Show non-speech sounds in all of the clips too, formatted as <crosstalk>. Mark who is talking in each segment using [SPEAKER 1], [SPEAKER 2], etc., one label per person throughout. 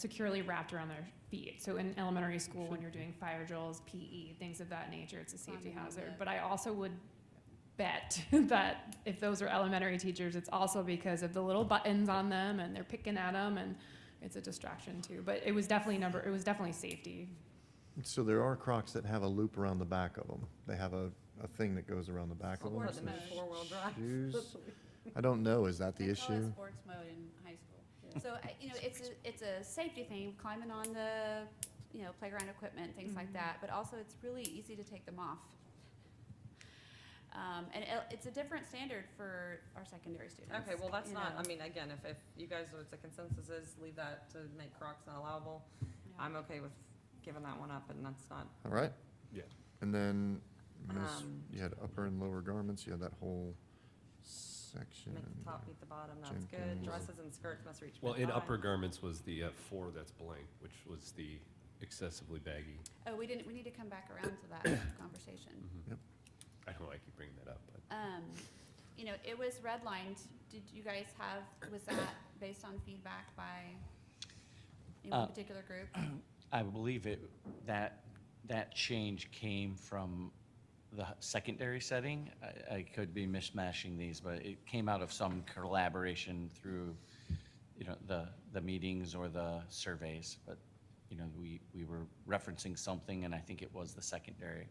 [SPEAKER 1] securely wrapped around their feet. So in elementary school, when you're doing fire drills, PE, things of that nature, it's a safety
[SPEAKER 2] Climbing on
[SPEAKER 1] hazard.
[SPEAKER 2] the-
[SPEAKER 1] But I also would bet <laughs> that if those are elementary teachers, it's also because of the little buttons on them and they're picking at them and it's a distraction too. But it was definitely number, it was definitely safety.
[SPEAKER 3] So there are Crocs that have a loop around the back of them. They have a, a thing that goes around the back of them.
[SPEAKER 2] Or
[SPEAKER 3] so
[SPEAKER 2] the four-wheel drive.
[SPEAKER 3] Shoes,
[SPEAKER 4] <laughs>
[SPEAKER 3] I don't know, is that the
[SPEAKER 2] They call it
[SPEAKER 3] issue?
[SPEAKER 2] sports mode in high school. So, I- you know, it's, a- it's a safety thing, climbing on the, you know, playground equipment, things like
[SPEAKER 1] Mhm.
[SPEAKER 4] Mm-hmm.
[SPEAKER 2] that, but also it's really easy to take them off. Um, and it- it's a different standard for our secondary students.
[SPEAKER 4] Okay, well, that's
[SPEAKER 2] you
[SPEAKER 4] not,
[SPEAKER 2] know.
[SPEAKER 4] I mean, again, if, if you guys, what the consensus is, leave that to make Crocs not allowable,
[SPEAKER 2] Yeah.
[SPEAKER 4] I'm okay with giving that one up, and that's not,
[SPEAKER 3] All right?
[SPEAKER 5] Yeah.
[SPEAKER 3] And then, miss-
[SPEAKER 4] um,
[SPEAKER 3] you had upper and lower garments, you had that whole section.
[SPEAKER 4] make the top meet the bottom, that's good,
[SPEAKER 3] Jenkins.
[SPEAKER 4] dresses and skirts must reach.
[SPEAKER 5] Well, in
[SPEAKER 4] bottom.
[SPEAKER 5] upper garments was the uh, four that's blank, which was the excessively baggy.
[SPEAKER 2] Oh, we didn't, we need to come back around
[SPEAKER 3] <coughs>
[SPEAKER 2] to that conversation.
[SPEAKER 3] Yep.
[SPEAKER 5] I don't know why I keep bringing that up, but
[SPEAKER 2] Um, you know, it was redlined, did you guys have, was that based on feedback by any
[SPEAKER 6] Uh,
[SPEAKER 2] one particular group?
[SPEAKER 6] I believe it, that, that change came from the h- secondary setting. I, I could be mishmashing these, but it came out of some collaboration through, you know, the, the meetings or the surveys. But, you know, we, we were referencing something, and I think it was the secondary.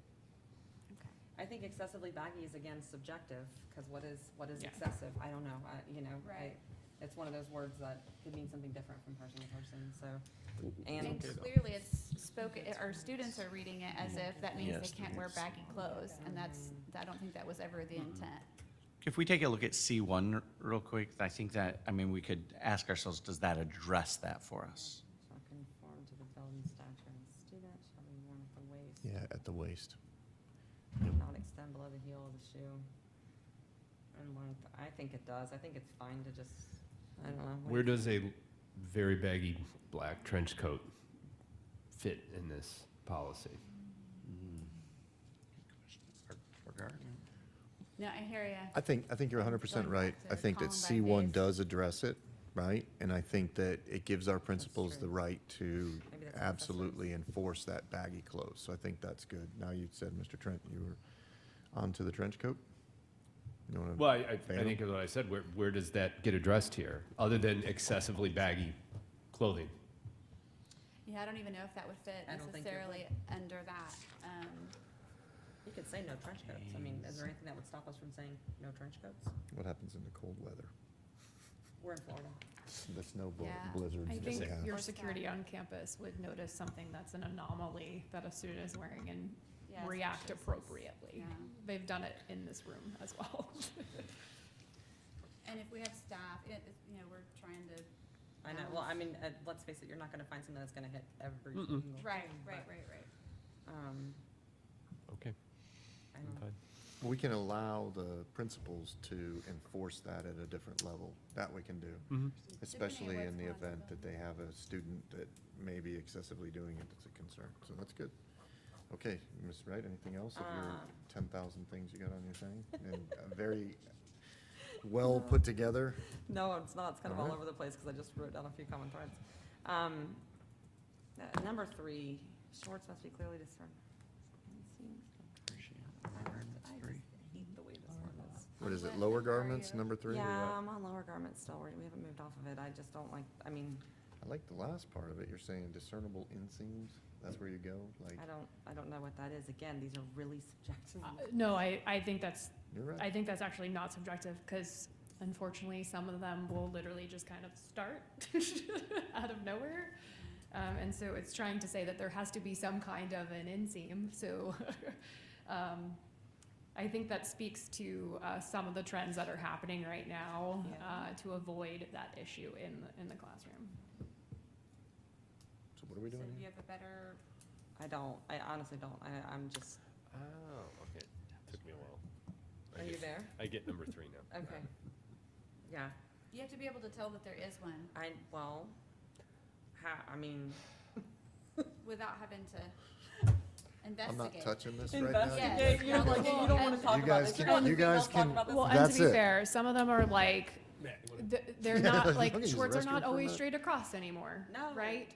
[SPEAKER 2] Okay.
[SPEAKER 4] I think excessively baggy is again subjective, because what is, what is
[SPEAKER 1] Yeah.
[SPEAKER 4] excessive, I don't know, I, you know, I,
[SPEAKER 2] Right.
[SPEAKER 4] it's one of those words that could mean something different from person to person, so,
[SPEAKER 2] And
[SPEAKER 4] and,
[SPEAKER 2] clearly, it's spoken, our students are reading it as if that means
[SPEAKER 6] Yes,
[SPEAKER 2] they can't wear
[SPEAKER 6] yes.
[SPEAKER 2] baggy clothes, and that's, I don't think that was ever the intent.
[SPEAKER 6] If we take a look at C1 r- real quick, I think that, I mean, we could ask ourselves, does that address that for us?
[SPEAKER 4] shall conform to the building stature of the student, shall be worn at the waist.
[SPEAKER 3] Yeah, at the waist.
[SPEAKER 4] not extend below the heel of the shoe. And length, I think it does, I think it's fine to just, I don't know.
[SPEAKER 5] where does a very baggy black trench coat fit in this policy?
[SPEAKER 2] No, I hear
[SPEAKER 3] I
[SPEAKER 2] ya.
[SPEAKER 3] think, I think you're hundred percent
[SPEAKER 2] Going
[SPEAKER 3] right.
[SPEAKER 2] back
[SPEAKER 3] I
[SPEAKER 2] to
[SPEAKER 3] think that C
[SPEAKER 2] Columbine
[SPEAKER 3] one
[SPEAKER 2] days.
[SPEAKER 3] does address it, right? And I think that it gives our principals the
[SPEAKER 4] true.
[SPEAKER 3] right to
[SPEAKER 4] Maybe that's what that says.
[SPEAKER 3] absolutely enforce that baggy clothes. So I think that's good. Now you said, Mr. Trent, you were onto the trench coat? You wanna-
[SPEAKER 5] Well, I, I- I
[SPEAKER 3] Phantom?
[SPEAKER 5] think of what I said, where, where does that get addressed here, other than excessively baggy clothing?
[SPEAKER 2] Yeah, I don't even know if that would fit
[SPEAKER 4] I don't think it
[SPEAKER 2] necessarily under that. Um,
[SPEAKER 4] You could say no trench coats, I mean, is there anything that would stop us from saying no trench coats?
[SPEAKER 3] What happens in the cold weather?
[SPEAKER 4] We're in Florida.
[SPEAKER 3] The snow bl-
[SPEAKER 2] Yeah.
[SPEAKER 3] blizzards.
[SPEAKER 1] I
[SPEAKER 3] that
[SPEAKER 1] think
[SPEAKER 3] we have.
[SPEAKER 1] your
[SPEAKER 2] Or
[SPEAKER 1] security
[SPEAKER 2] sky.
[SPEAKER 1] on campus would notice something that's an anomaly that a student is wearing and
[SPEAKER 2] yeah, it's-
[SPEAKER 1] react appropriately.
[SPEAKER 2] Yeah.
[SPEAKER 1] They've done it in this room as <laughs> well.
[SPEAKER 2] And if we have staff, it, it- you know, we're trying to,
[SPEAKER 4] I know, well, I mean, uh, let's face it, you're not gonna find something that's gonna hit every
[SPEAKER 5] Mm-mm.
[SPEAKER 4] single.
[SPEAKER 2] right,
[SPEAKER 4] thing,
[SPEAKER 2] right,
[SPEAKER 4] but,
[SPEAKER 2] right, right.
[SPEAKER 4] Um,
[SPEAKER 5] Okay,
[SPEAKER 4] I don't know.
[SPEAKER 3] We can allow the principals to enforce that at a different level. That we can do, especially in the event that they have a student that may be excessively doing it that's a concern. So that's good. Okay, Ms. Wright, anything else of your
[SPEAKER 4] Uh.
[SPEAKER 3] ten thousand things you got on
[SPEAKER 4] <laughs>
[SPEAKER 3] your thing? And uh, very well put together.
[SPEAKER 4] No, it's not, it's kind of all
[SPEAKER 3] Alright.
[SPEAKER 4] over the place, cause I just wrote down a few common threads. Um, uh, number three, shorts must be clearly discerned. I just hate the way this one is.
[SPEAKER 3] What is it,
[SPEAKER 2] What
[SPEAKER 3] lower
[SPEAKER 2] number
[SPEAKER 4] uh,
[SPEAKER 2] are
[SPEAKER 3] garments,
[SPEAKER 2] you?
[SPEAKER 3] number three? Where you
[SPEAKER 4] Yeah,
[SPEAKER 3] at?
[SPEAKER 4] I'm on lower garments still. We're- We haven't moved off of it. I just don't like, I mean,
[SPEAKER 3] I like the last part of it. You're saying discernible inseams? That's where you go? Like,
[SPEAKER 4] I don't, I don't know what that is. Again, these are really subjective.
[SPEAKER 1] Uh, No, I, I think that's,
[SPEAKER 3] you're right.
[SPEAKER 1] I think that's actually not subjective, because unfortunately, some of them will literally just kind of start <laughs> out of nowhere. Um, and so it's trying to say that there has to be some kind of an inseam, so, <laughs> um, I think that speaks to, uh, some of the trends that are happening right now,
[SPEAKER 4] Yeah.
[SPEAKER 1] uh, to avoid that issue in, in the classroom.
[SPEAKER 3] So what are we doing here?
[SPEAKER 2] you have a better,
[SPEAKER 4] I don't, I honestly don't. I, I'm just,
[SPEAKER 5] Oh, okay, took me a while.
[SPEAKER 4] are
[SPEAKER 5] I
[SPEAKER 4] you
[SPEAKER 5] get,
[SPEAKER 4] there?
[SPEAKER 5] I get number three now.
[SPEAKER 4] Okay. Yeah,
[SPEAKER 2] you have to be able to tell that there is one
[SPEAKER 4] I, well, ha, I mean,
[SPEAKER 2] without having to
[SPEAKER 3] I'm not
[SPEAKER 2] investigate.
[SPEAKER 3] touching this right now.
[SPEAKER 2] Investigate.
[SPEAKER 4] investigate, you're like, you don't
[SPEAKER 2] Well,
[SPEAKER 4] wanna
[SPEAKER 2] and-
[SPEAKER 4] talk
[SPEAKER 3] You
[SPEAKER 4] about
[SPEAKER 3] guys
[SPEAKER 4] this. You're
[SPEAKER 3] can-
[SPEAKER 4] on the
[SPEAKER 3] you
[SPEAKER 4] female
[SPEAKER 3] guys
[SPEAKER 4] talk
[SPEAKER 3] can-
[SPEAKER 4] about this.
[SPEAKER 1] Well, and
[SPEAKER 3] That's
[SPEAKER 1] to be
[SPEAKER 3] it.
[SPEAKER 1] fair, some of them are like th- they're not, like,
[SPEAKER 3] Look at his
[SPEAKER 1] Schwartz are
[SPEAKER 3] restroom
[SPEAKER 1] not
[SPEAKER 3] for a
[SPEAKER 1] always
[SPEAKER 3] <laughs> minute.
[SPEAKER 1] straight across anymore,
[SPEAKER 4] No,
[SPEAKER 1] right?